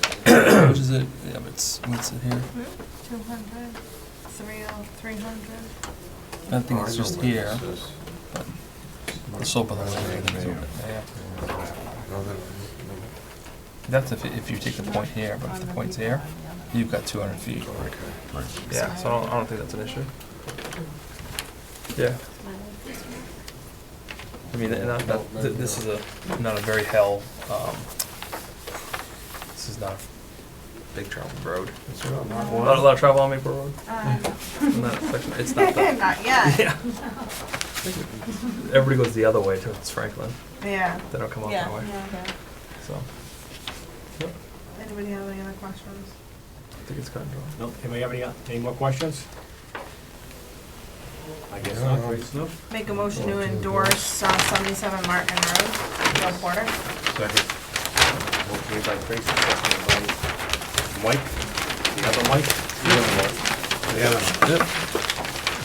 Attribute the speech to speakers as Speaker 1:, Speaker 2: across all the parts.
Speaker 1: much is it? Yeah, but it's, what's it here?
Speaker 2: Two hundred, three oh, three hundred.
Speaker 1: I think
Speaker 3: Oh,
Speaker 1: it's just here, but the soap on the way. That's if, if you take the point here, but if the point's here, you've got two hundred feet. Yeah, so I don't, I don't think that's an issue. Yeah, I mean, and that, that, th- this is a, not a very hell, um, this is not a big travel road. A lot, a lot of travel on Maple Road, in that section, it's not that.
Speaker 2: Uh, Not yet,
Speaker 1: Yeah. Everybody goes the other way towards Franklin.
Speaker 2: yeah.
Speaker 1: They don't come up that way. So
Speaker 2: Anybody have any other questions?
Speaker 1: I think it's kind of.
Speaker 4: No, anybody have any, any more questions? I guess not. No.
Speaker 2: Make a motion to endorse uh, seventy-seven Martin Road, Joe Porter.
Speaker 4: Second. Motion made by Tracy, seconded by Mike, the other Mike. The other Mike.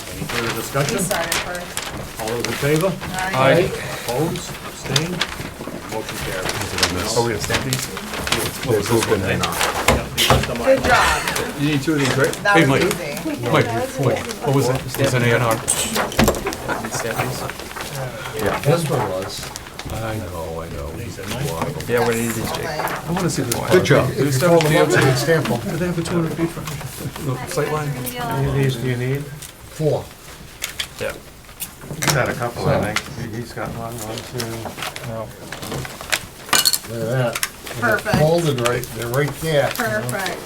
Speaker 4: Any further
Speaker 2: He
Speaker 4: discussion?
Speaker 2: started first. Uh,
Speaker 4: All those in favor?
Speaker 2: Aye.
Speaker 4: Opposed, abstained, motion Oh, carries.
Speaker 5: Are we
Speaker 4: gonna stamp these?
Speaker 5: There's this one there.
Speaker 2: Good job,
Speaker 5: You need two of these, right?
Speaker 2: that
Speaker 5: Hey,
Speaker 2: was
Speaker 5: Mike.
Speaker 2: easy.
Speaker 5: Mike, Mike, what was it? It's an A and R.
Speaker 3: This one was.
Speaker 5: I know, I know.
Speaker 1: Yeah, what it is is Jake.
Speaker 2: Like,
Speaker 5: I wanna see this one.
Speaker 3: Good job.
Speaker 5: Do they
Speaker 3: If you
Speaker 5: still
Speaker 3: pull
Speaker 5: have-
Speaker 3: them
Speaker 5: do they
Speaker 3: up,
Speaker 5: have-
Speaker 3: you can stamp them.
Speaker 5: do they have a two hundred feet front, the sightline?
Speaker 4: Any of these do you need?
Speaker 3: Four.
Speaker 1: Yeah.
Speaker 4: He's had a couple, I think. He's got one, one, two.
Speaker 1: No.
Speaker 3: Look at that. They're
Speaker 2: Perfect.
Speaker 3: Folded right, they're right there. you know.
Speaker 2: Perfect.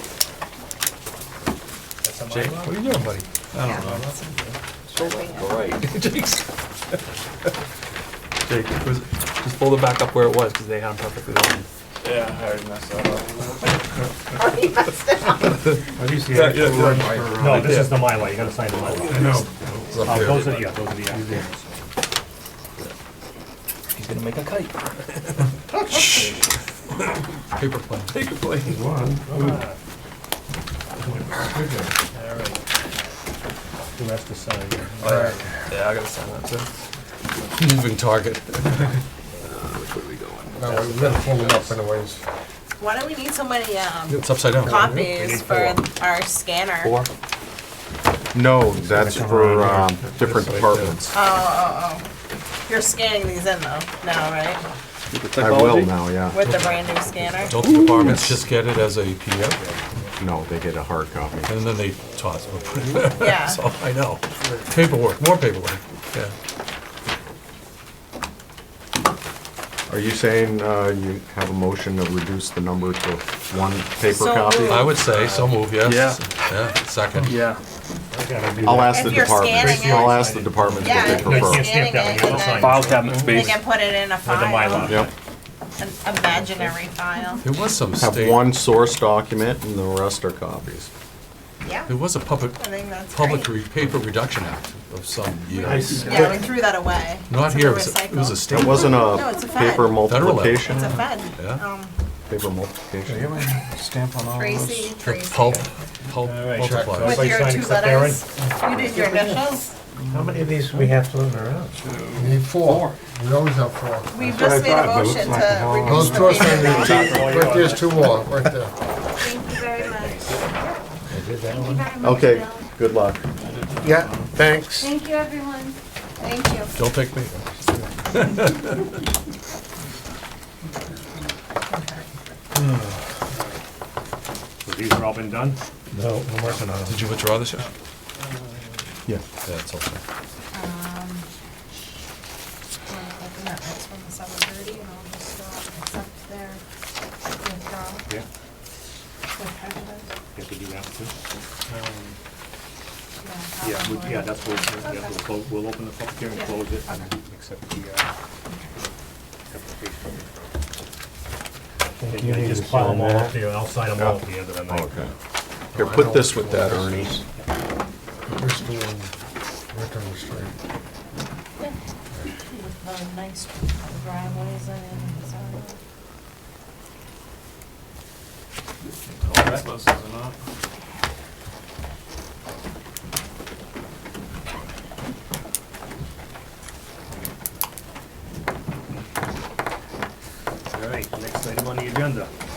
Speaker 1: Jake,
Speaker 3: What are you doing, buddy?
Speaker 2: I don't know.
Speaker 5: Jake's. Jake, it was, just fold it back up where it was, cause they had them perfectly lined.
Speaker 4: Yeah, I already messed that up.
Speaker 2: Oh, he messed it up.
Speaker 4: At least the
Speaker 5: Yeah, yeah,
Speaker 4: actual
Speaker 5: yeah.
Speaker 4: one for. No, this is the Mylar, you gotta sign the Mylar. I know.
Speaker 5: It's up there.
Speaker 4: Oh, Uh, Those are, yeah, those are the actuals.
Speaker 1: he's gonna make a kite.
Speaker 5: Paper plane. Paper plane.
Speaker 4: Alright. Who has to sign?
Speaker 3: Oh,
Speaker 1: Yeah, I gotta sign that too.
Speaker 5: Moving target.
Speaker 3: No, Uh, we gotta pull them up anyways.
Speaker 2: Why do we need so many, um,
Speaker 5: It's upside down.
Speaker 2: copies for our scanner?
Speaker 5: Four.
Speaker 6: No, that's for um, different departments.
Speaker 2: Oh, oh, oh. You're scanning these in though, now, right?
Speaker 6: I will now, yeah.
Speaker 2: With the brand new scanner?
Speaker 5: Don't the departments just get it as a PDF,
Speaker 6: No, they get a hard copy.
Speaker 5: and then they toss it?
Speaker 2: Yeah.
Speaker 5: So, I know. Paperwork, more paperwork, yeah.
Speaker 6: Are you saying uh, you have a motion to reduce the number to one paper
Speaker 2: So
Speaker 6: copy?
Speaker 2: moved.
Speaker 5: I would say, so move, yes. Yeah. second.
Speaker 1: Yeah.
Speaker 4: I gotta do
Speaker 6: I'll
Speaker 4: that.
Speaker 6: ask the
Speaker 2: If you're
Speaker 6: departments,
Speaker 2: scanning it.
Speaker 6: I'll ask the departments what
Speaker 2: Yeah,
Speaker 6: they
Speaker 2: if you're
Speaker 6: prefer.
Speaker 2: scanning
Speaker 4: stamp
Speaker 2: it
Speaker 4: that when you
Speaker 2: and
Speaker 4: sign.
Speaker 2: then
Speaker 4: File
Speaker 1: cabinet
Speaker 2: they can put it in a file,
Speaker 6: Yep,
Speaker 2: an imaginary file.
Speaker 5: There was some
Speaker 6: have
Speaker 5: state,
Speaker 6: one source document and the rest are copies.
Speaker 2: Yeah,
Speaker 5: there was a public,
Speaker 2: I think that's
Speaker 5: public
Speaker 2: great.
Speaker 5: re- paper reduction act of some years.
Speaker 2: Yeah, we threw that away.
Speaker 5: Not
Speaker 2: It's a
Speaker 5: here, it was a- it
Speaker 2: recycle.
Speaker 5: was a
Speaker 6: It
Speaker 5: state,
Speaker 6: wasn't
Speaker 2: No, it's
Speaker 6: a
Speaker 2: a fact.
Speaker 6: paper
Speaker 2: Federal
Speaker 6: multiplication,
Speaker 2: It's a fed.
Speaker 5: Yeah.
Speaker 2: Um,
Speaker 6: paper multiplication.
Speaker 3: Stamp on all
Speaker 2: Tracy, Tracy.
Speaker 5: pulp, pulp
Speaker 4: Alright,
Speaker 5: multipliers.
Speaker 2: With
Speaker 4: Everybody
Speaker 2: your
Speaker 4: sign
Speaker 2: two
Speaker 4: except Aaron?
Speaker 2: letters, you did your initials.
Speaker 4: How many of these we have floating around?
Speaker 3: We need four. We always have four.
Speaker 2: We just made a motion to reduce
Speaker 3: Those two are signed,
Speaker 2: the paper.
Speaker 3: right there's two more, right there.
Speaker 7: Thank you very much.
Speaker 6: Okay, good luck.
Speaker 3: Yeah, thanks.
Speaker 7: Thank you, everyone.
Speaker 2: Thank you.
Speaker 5: Don't take me.
Speaker 4: So These are all been done?
Speaker 3: No, I'm working on
Speaker 5: Did you withdraw this year?
Speaker 6: Yeah.
Speaker 5: Yeah, it's okay.
Speaker 7: Um,
Speaker 2: Wanna open that next one, the 7:30, and I'll just, uh, accept their withdrawal
Speaker 4: Yeah.
Speaker 2: with prejudice?
Speaker 4: You have to do that too?
Speaker 2: that
Speaker 4: Yeah,
Speaker 2: one.
Speaker 4: we- yeah, that's what, we'll- yeah, we'll, clo- we'll open the public hearing, close it, and accept the, uh, application. And you just pile them all up here, I'll sign them all at the end of the night.
Speaker 6: Okay. Here, put this with that, Ernie.
Speaker 3: We're still on Rickon Street.
Speaker 2: With the nice driveways in and so on.
Speaker 4: All right, next item on the agenda.